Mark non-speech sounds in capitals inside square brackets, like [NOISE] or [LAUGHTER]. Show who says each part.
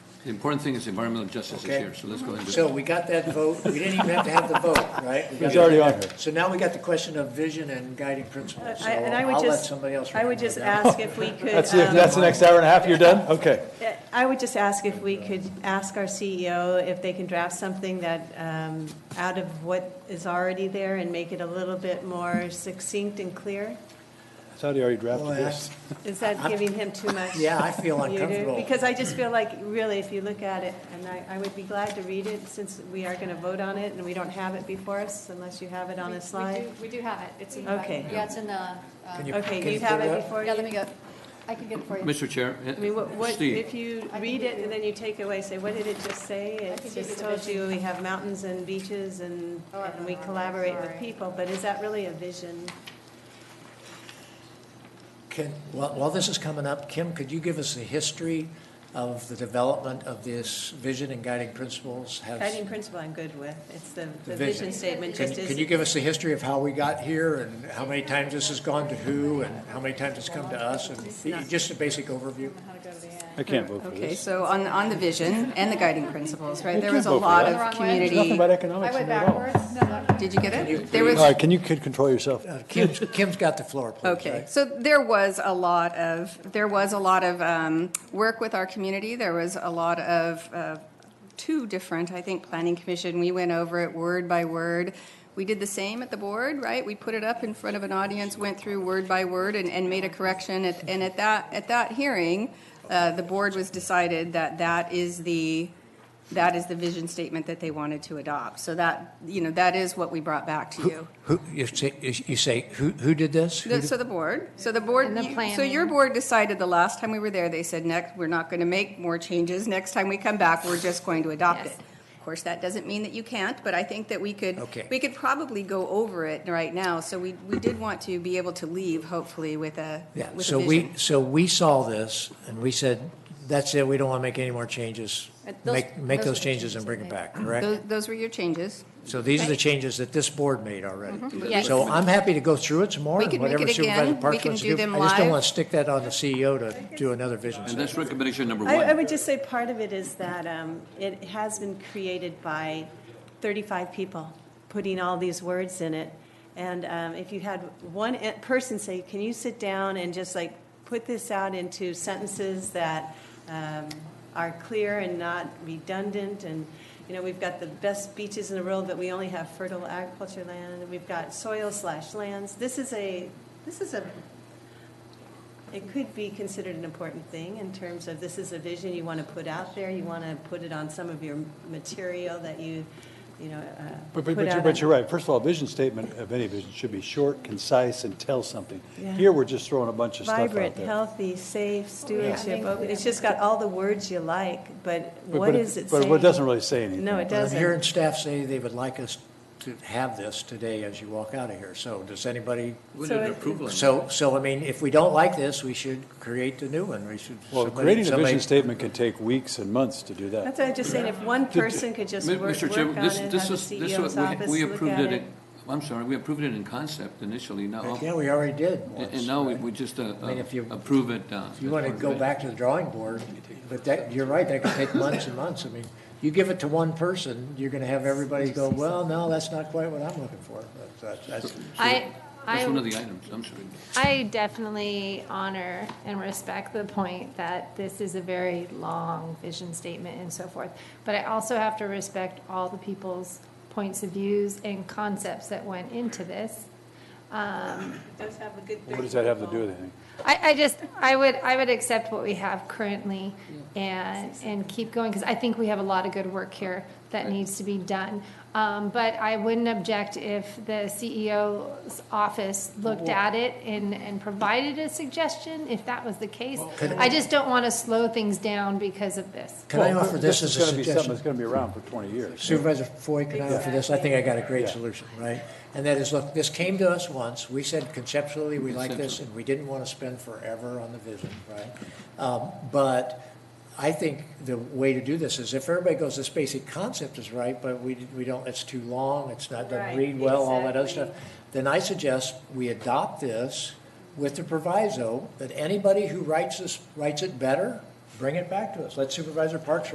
Speaker 1: The important thing is environmental justice is
Speaker 2: Okay.
Speaker 1: here, so let's go ahead and do
Speaker 2: So
Speaker 1: that.
Speaker 2: we got that vote, we didn't even have to have the vote, right? We
Speaker 3: It was
Speaker 2: got-
Speaker 3: already on here.
Speaker 2: So now we got the question of vision and guiding principles, so
Speaker 4: Uh, I- and I would
Speaker 2: I'll let
Speaker 4: just-
Speaker 2: somebody else.
Speaker 4: I would
Speaker 2: remember
Speaker 4: just
Speaker 2: that. [LAUGHS]
Speaker 4: ask if we could.
Speaker 3: That's, the-
Speaker 4: um, eh,
Speaker 3: that's the next hour and a half, you're done? Okay.
Speaker 4: I would just ask if we could ask our CEO if they can draft something that, um, out of what is already there and make it a little bit more succinct and clear?
Speaker 3: I thought he already drafted
Speaker 2: Well,
Speaker 3: this.
Speaker 2: that's-
Speaker 4: Is that giving him too much?
Speaker 2: Yeah, I feel
Speaker 4: You do?
Speaker 2: uncomfortable.
Speaker 4: Because I just feel like, really, if you look at it, and I, I would be glad to read it since we are going to vote on it and we don't have it before us unless you have it on
Speaker 5: We-
Speaker 4: a
Speaker 5: we
Speaker 4: slide.
Speaker 5: do- We do have it, it's in the.
Speaker 4: Okay.
Speaker 5: Yeah, it's in the, uh,
Speaker 2: Can you- can
Speaker 4: Okay, you
Speaker 2: put
Speaker 4: have
Speaker 2: up?
Speaker 4: it before
Speaker 5: yeah, let
Speaker 4: you?
Speaker 5: me go, I can get it for you.
Speaker 1: Mr. Chair,
Speaker 4: I mean, what,
Speaker 1: eh,
Speaker 4: what, if
Speaker 1: Steve,
Speaker 4: you
Speaker 5: I
Speaker 4: read
Speaker 5: can
Speaker 4: it
Speaker 5: give
Speaker 4: and then you take away, say, what did it just say?
Speaker 5: can
Speaker 4: It
Speaker 5: give you
Speaker 4: just
Speaker 5: the
Speaker 4: told
Speaker 5: vision.
Speaker 4: you we have mountains and beaches and,
Speaker 5: Oh, I don't
Speaker 4: and we
Speaker 5: know.
Speaker 4: collaborate with
Speaker 5: Sorry.
Speaker 4: people, but is that really a vision?
Speaker 2: Can, while, while this is coming up, Kim, could you give us the history of the development of this vision and guiding principles? Has-
Speaker 4: Guiding principle I'm good with, it's the, the
Speaker 2: vision.
Speaker 4: vision statement
Speaker 2: Can,
Speaker 4: just
Speaker 2: can you
Speaker 4: is,
Speaker 2: give us the history of how we got here and how many times this has gone to who and how many times it's come to us? And just a basic overview.
Speaker 5: How to go to the end.
Speaker 3: I can't vote for
Speaker 6: Okay,
Speaker 3: this.
Speaker 6: so on, on the vision and the guiding principles, right, there
Speaker 3: can't
Speaker 6: was a
Speaker 3: vote for
Speaker 6: lot
Speaker 3: that.
Speaker 6: of
Speaker 3: There's nothing
Speaker 6: community,
Speaker 3: about
Speaker 5: I
Speaker 3: economics in
Speaker 5: went
Speaker 3: it at all.
Speaker 5: backwards, no,
Speaker 6: did you get it? There
Speaker 3: All
Speaker 6: was,
Speaker 3: right, can you, kid, control yourself?
Speaker 2: Uh, Kim's, Kim's got the floor, please.
Speaker 6: Okay,
Speaker 2: right?
Speaker 6: so there was a lot of, there was a lot of um, work with our community. There was a lot of, uh, two different, I think, planning commission, we went over it word by word. We did the same at the board, right? We put it up in front of an audience, went through word by word and, and made a correction. At- And at that, at that hearing, uh, the board was decided that that is the, that is the vision statement that they wanted to adopt. So that, you know, that is what we brought back to you.
Speaker 2: Who, you say, you say, who, who did this? Who
Speaker 6: The-
Speaker 2: did-
Speaker 6: So the board, so the board,
Speaker 5: And the
Speaker 6: you- so your
Speaker 5: planning.
Speaker 6: board decided the last time we were there, they said, next, we're not going to make more changes. Next time we come back, we're just going to adopt it.
Speaker 5: Yes.
Speaker 6: Of course, that doesn't mean that you can't, but I think that we could,
Speaker 2: Okay.
Speaker 6: we could probably go over it right now. So we, we did want to be able to leave hopefully with a,
Speaker 2: Yeah,
Speaker 6: with a
Speaker 2: so we,
Speaker 6: vision.
Speaker 2: so we saw this, and we said, that's it, we don't want to make any more changes.
Speaker 5: And those-
Speaker 2: Make, make
Speaker 5: those are
Speaker 2: those
Speaker 5: the
Speaker 2: changes
Speaker 5: changes
Speaker 2: and
Speaker 5: that
Speaker 2: bring it
Speaker 5: they-
Speaker 2: back, correct?
Speaker 6: Those, those were your changes.
Speaker 2: So these are the changes that this board made already.
Speaker 5: Yes.
Speaker 2: So I'm happy to go through it some more,
Speaker 6: Mm-hmm. We
Speaker 2: and
Speaker 6: can make
Speaker 2: whatever
Speaker 6: it again.
Speaker 2: Supervisor
Speaker 6: We
Speaker 2: Parks
Speaker 6: can
Speaker 2: wants
Speaker 6: do
Speaker 2: to do.
Speaker 6: them
Speaker 2: I just don't
Speaker 6: live.
Speaker 2: want to stick that on the CEO to do another vision
Speaker 1: and
Speaker 2: statement.
Speaker 1: that's recommendation number
Speaker 4: I, I
Speaker 1: one.
Speaker 4: would just say part of it is that, um, it has been created by thirty-five people, putting all these words in it. And, um, if you had one e- person say, can you sit down and just like put this out into sentences that, um, are clear and not redundant and, you know, we've got the best beaches in the world, but we only have fertile agriculture land, we've got soil slash lands. This is a, this is a it could be considered an important thing in terms of this is a vision you want to put out there, you want to put it on some of your material that you, you know, uh,
Speaker 3: But, but,
Speaker 4: put
Speaker 3: but
Speaker 4: out
Speaker 3: you're,
Speaker 4: on-
Speaker 3: but you're right. First of all, vision statement of any vision should be short, concise, and tell something.
Speaker 4: Yeah.
Speaker 3: Here, we're just throwing a bunch of stuff out there.
Speaker 4: Vibrant, healthy, safe, stewardship,
Speaker 5: think
Speaker 4: open- it's just got all the words you like, but
Speaker 3: But-
Speaker 4: what
Speaker 3: but
Speaker 4: is it saying?
Speaker 3: But it doesn't really say anything.
Speaker 4: No, it
Speaker 2: But I'm hearing
Speaker 4: doesn't.
Speaker 2: staff say they would like us to have this today as you walk out of here, so does anybody?
Speaker 1: We
Speaker 4: So
Speaker 1: need an
Speaker 4: it-
Speaker 1: approval. on
Speaker 2: So, so I mean, if we don't like this, we should create the new one, we should.
Speaker 3: Well,
Speaker 2: somebody-
Speaker 3: creating a
Speaker 2: somebody-
Speaker 3: vision statement can take weeks and months to do that.
Speaker 4: That's what I'm just saying, if one person could just
Speaker 1: Mi-
Speaker 4: work work
Speaker 1: Mr.
Speaker 4: on
Speaker 1: Chair,
Speaker 4: it,
Speaker 1: this,
Speaker 4: have the
Speaker 1: this was, this
Speaker 4: CEO's
Speaker 1: was, we-
Speaker 4: office
Speaker 1: we
Speaker 4: look
Speaker 1: approved
Speaker 4: at
Speaker 1: it,
Speaker 4: it.
Speaker 1: in- I'm sorry, we approved it in concept initially, now,
Speaker 2: Yeah, we already did once.
Speaker 1: and now we-
Speaker 2: right?
Speaker 1: we just uh,
Speaker 2: I mean, if you-
Speaker 1: approve it. uh,
Speaker 2: If you want to go back to the drawing board, but that, you're right, that could take months and months. I mean, you give it to one person, you're going to have everybody go, well, no, that's not quite what I'm looking for. But that's- that's-
Speaker 7: I,
Speaker 1: That's one of
Speaker 7: I,
Speaker 1: the items, I'm sorry.
Speaker 7: I definitely honor and respect the point that this is a very long vision statement and so forth. But I also have to respect all the people's points of views and concepts that went into this.
Speaker 4: It does have a good
Speaker 3: What does that have to do with anything?
Speaker 7: I, I just, I would, I would accept what we have currently and, and keep going, because I think we have a lot of good work here that needs to be done. Um, but I wouldn't object if the CEO's office looked at it and, and provided a suggestion, if that was the case. I just don't want to slow things down because of this.
Speaker 2: Can I
Speaker 3: Well,
Speaker 2: offer this as
Speaker 3: is
Speaker 2: a
Speaker 3: gonna be something
Speaker 2: suggestion?
Speaker 3: That's going to be around for 20 years.
Speaker 2: Supervisor Foy, can I offer this? I think I got a great solution, right? And that is, look, this came to us once, we said conceptually, we like this, and we didn't want to spend forever on the vision, right? Um, But I think the way to do this is if everybody goes, this basic concept is right, but we, we don't, it's too long, it's not, doesn't
Speaker 4: Right,
Speaker 2: read well, all that other stuff,
Speaker 4: exactly.
Speaker 2: then I suggest we adopt this with the proviso that anybody who writes this, writes it better, bring it back to us. Let Supervisor Parks